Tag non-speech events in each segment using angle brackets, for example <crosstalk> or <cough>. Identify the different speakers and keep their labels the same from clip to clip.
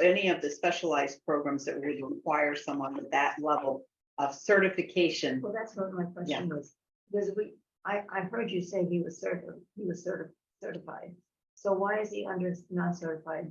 Speaker 1: any of the specialized programs that would require someone with that level of certification.
Speaker 2: Well, that's what my question was, because we, I, I heard you say he was certified, he was certi- certified. So why is he under non-certified?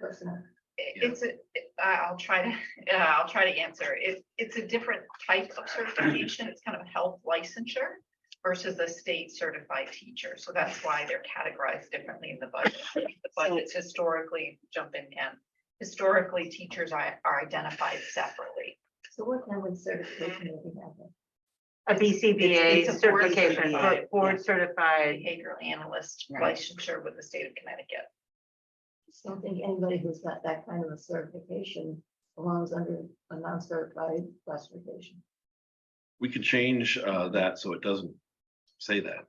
Speaker 2: Personnel,
Speaker 3: It-
Speaker 4: Yeah.
Speaker 3: It's a, it- I- I'll try to, uh, I'll try to answer. It, it's a different type of certification. It's kind of a health licensure versus a state certified teacher. So that's why they're categorized differently in the budget. The budgets historically, jump in and historically, teachers are, are identified separately.
Speaker 2: so what kind of certification would he have? then?
Speaker 5: A
Speaker 3: It's- it's-
Speaker 5: BCBA
Speaker 3: it's a board
Speaker 5: certification,
Speaker 3: certified,
Speaker 5: bo- board
Speaker 1: yeah.
Speaker 5: certified.
Speaker 3: Behavioral analyst
Speaker 1: Right.
Speaker 3: licensure with the state of Connecticut.
Speaker 2: I don't think anybody who's got that kind of a certification belongs under a non-certified classification.
Speaker 4: We could change uh that so it doesn't say that.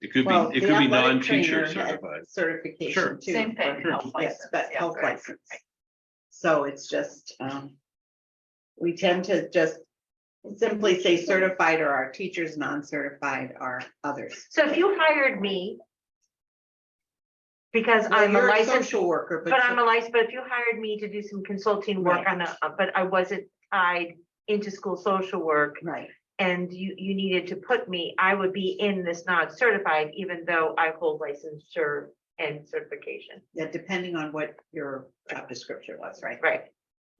Speaker 4: It could
Speaker 1: Well,
Speaker 4: be, it
Speaker 1: the
Speaker 4: could be
Speaker 1: athletic trainer
Speaker 4: non-teacher
Speaker 1: had
Speaker 4: certified. Sure.
Speaker 1: Certification too.
Speaker 3: Same thing,
Speaker 4: sure.
Speaker 3: health
Speaker 1: Yes,
Speaker 3: license.
Speaker 1: but
Speaker 3: yeah,
Speaker 1: health
Speaker 3: right,
Speaker 1: license.
Speaker 3: right.
Speaker 1: So it's just, um, we tend to just simply say certified or our teachers, non-certified are others.
Speaker 5: So if you hired me. Because I'm a
Speaker 1: You're
Speaker 5: licensed,
Speaker 1: Social worker,
Speaker 5: but I'm a
Speaker 1: but
Speaker 5: licensed, but if you hired me to do some consulting work
Speaker 1: Right.
Speaker 5: on a, but I wasn't tied into school social work.
Speaker 1: right,
Speaker 5: And you, you needed to put me, I would be in this non-certified, even though I hold licensure and certification,
Speaker 1: yeah, depending on what your job description was, right?
Speaker 5: right?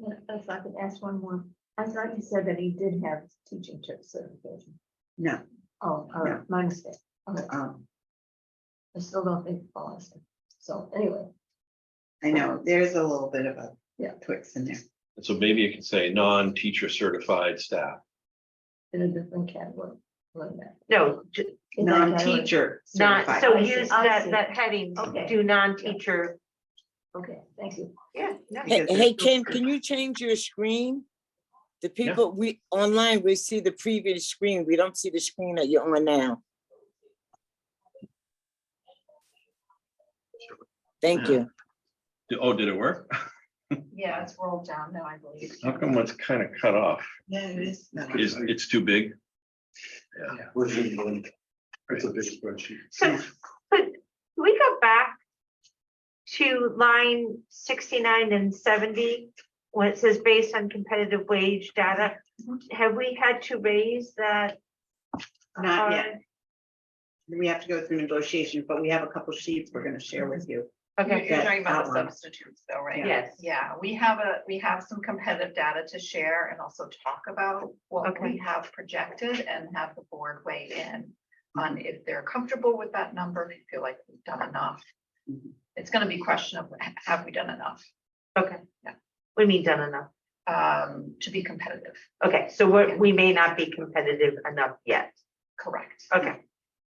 Speaker 2: Yeah, If I could ask one more, I thought you said that he did have teaching cert- certification.
Speaker 1: No,
Speaker 2: Oh, all right, my mistake. All right,
Speaker 1: um,
Speaker 2: I still don't think it belongs. So anyway,
Speaker 1: I know, there's a little bit of a
Speaker 2: Yeah.
Speaker 1: twix in there.
Speaker 4: And So maybe it can say non-teacher certified staff.
Speaker 2: in a different category. like that.
Speaker 5: No, j-
Speaker 2: In that category.
Speaker 1: Non-teacher
Speaker 5: not,
Speaker 1: certified.
Speaker 5: so
Speaker 2: I see,
Speaker 5: use
Speaker 2: I
Speaker 5: that,
Speaker 2: see.
Speaker 5: that heading,
Speaker 2: Okay.
Speaker 5: do non-teacher.
Speaker 2: Okay, thank you.
Speaker 5: Yeah. no.
Speaker 1: Because
Speaker 6: Hey,
Speaker 1: they're
Speaker 6: hey,
Speaker 1: still
Speaker 6: Kim, can you change your screen? The people, we, online, we see the previous screen. We don't see the screen that you're on now. Thank
Speaker 4: Yeah.
Speaker 6: you.
Speaker 4: Oh, did it work?
Speaker 3: Yeah, it's rolled down now, I believe.
Speaker 4: How come it's kind of cut off?
Speaker 1: Yeah, it is. No,
Speaker 4: Is, it's too big?
Speaker 7: We're doing one. It's a big spreadsheet.
Speaker 5: So, but we go back to line sixty-nine and seventy, when it says based on competitive wage data. Have we had to raise that?
Speaker 1: Not yet.
Speaker 5: uh,
Speaker 1: We have to go through negotiations, but we have a couple sheets we're gonna share with you.
Speaker 3: You're
Speaker 5: Okay,
Speaker 3: you're talking about the
Speaker 1: outline.
Speaker 3: substitutes though, right?
Speaker 5: Yes.
Speaker 3: Yeah, we have a, we have some competitive data to share and also talk about what
Speaker 5: Okay.
Speaker 3: we have projected and have the board weigh in on if they're comfortable with that number, if you feel like we've done enough.
Speaker 1: Mhm.
Speaker 3: It's gonna be a question of, ha- have we done enough
Speaker 5: okay.
Speaker 3: Yeah.
Speaker 5: We mean done enough.
Speaker 3: um, to be competitive?
Speaker 5: Okay, so we're, we may not be competitive enough yet.
Speaker 3: Correct.
Speaker 5: Okay,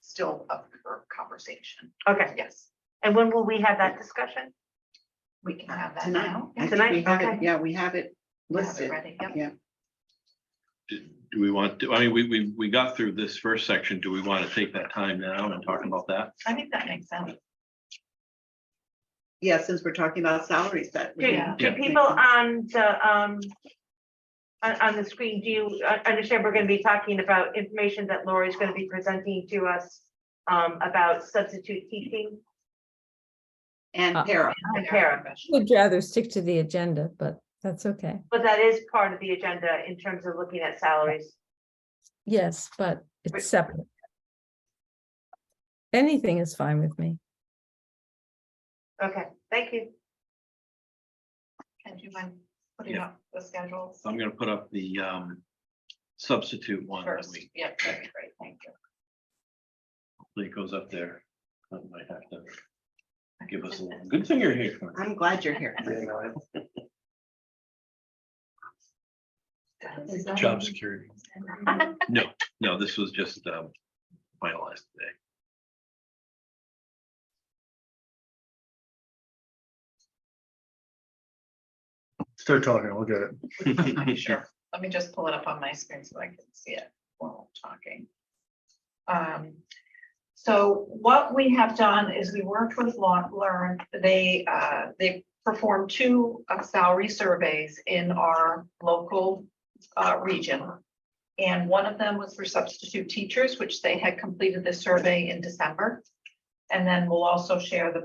Speaker 3: Still up for conversation.
Speaker 5: okay.
Speaker 3: Yes,
Speaker 5: And when will we have that discussion?
Speaker 3: we can have that
Speaker 1: Tonight.
Speaker 3: now.
Speaker 1: I think
Speaker 5: Tonight,
Speaker 1: we have it-
Speaker 5: okay.
Speaker 1: Yeah, we have it
Speaker 3: We have it
Speaker 1: listed.
Speaker 3: ready, yep.
Speaker 1: Yeah.
Speaker 4: Do we want to, I mean, we, we, we got through this first section. Do we want to take that time now and talk about that?
Speaker 3: I think that makes sense.
Speaker 1: Yeah, since we're talking about salaries that. we-
Speaker 5: Do,
Speaker 3: Yeah.
Speaker 5: do people on the, um, on, on the screen, do you uh, understand we're gonna be talking about information that Lori's gonna be presenting to us um, about substitute teaching?
Speaker 1: And
Speaker 8: Uh,
Speaker 1: para,
Speaker 5: And para.
Speaker 8: Would rather stick to the agenda, but that's okay.
Speaker 5: But that is part of the agenda in terms of looking at salaries.
Speaker 8: Yes, but
Speaker 5: Right.
Speaker 8: it's separate. Anything is fine with me.
Speaker 5: Okay, thank you.
Speaker 3: And do you mind putting
Speaker 4: Yeah.
Speaker 3: up the schedules?
Speaker 4: So I'm gonna put up the um substitute one that
Speaker 3: First,
Speaker 4: we,
Speaker 3: yeah, that'd be great, thank you.
Speaker 4: that goes up there. That might have to give us a little, good thing you're here. Connie.
Speaker 1: I'm glad you're here.
Speaker 7: You know,
Speaker 2: Is that-
Speaker 4: Job security. No, no, this was just um finalized today.
Speaker 7: Start talking, we'll get
Speaker 3: <laughs>
Speaker 7: it.
Speaker 3: Sure, let me just pull it up on my screen so I can see it while I'm talking. Um, so what we have done is we worked with Law, Learn, they, uh, they performed two uh, salary surveys in our local, uh, region. And one of them was for substitute teachers, which they had completed the survey in December. And then we'll also share the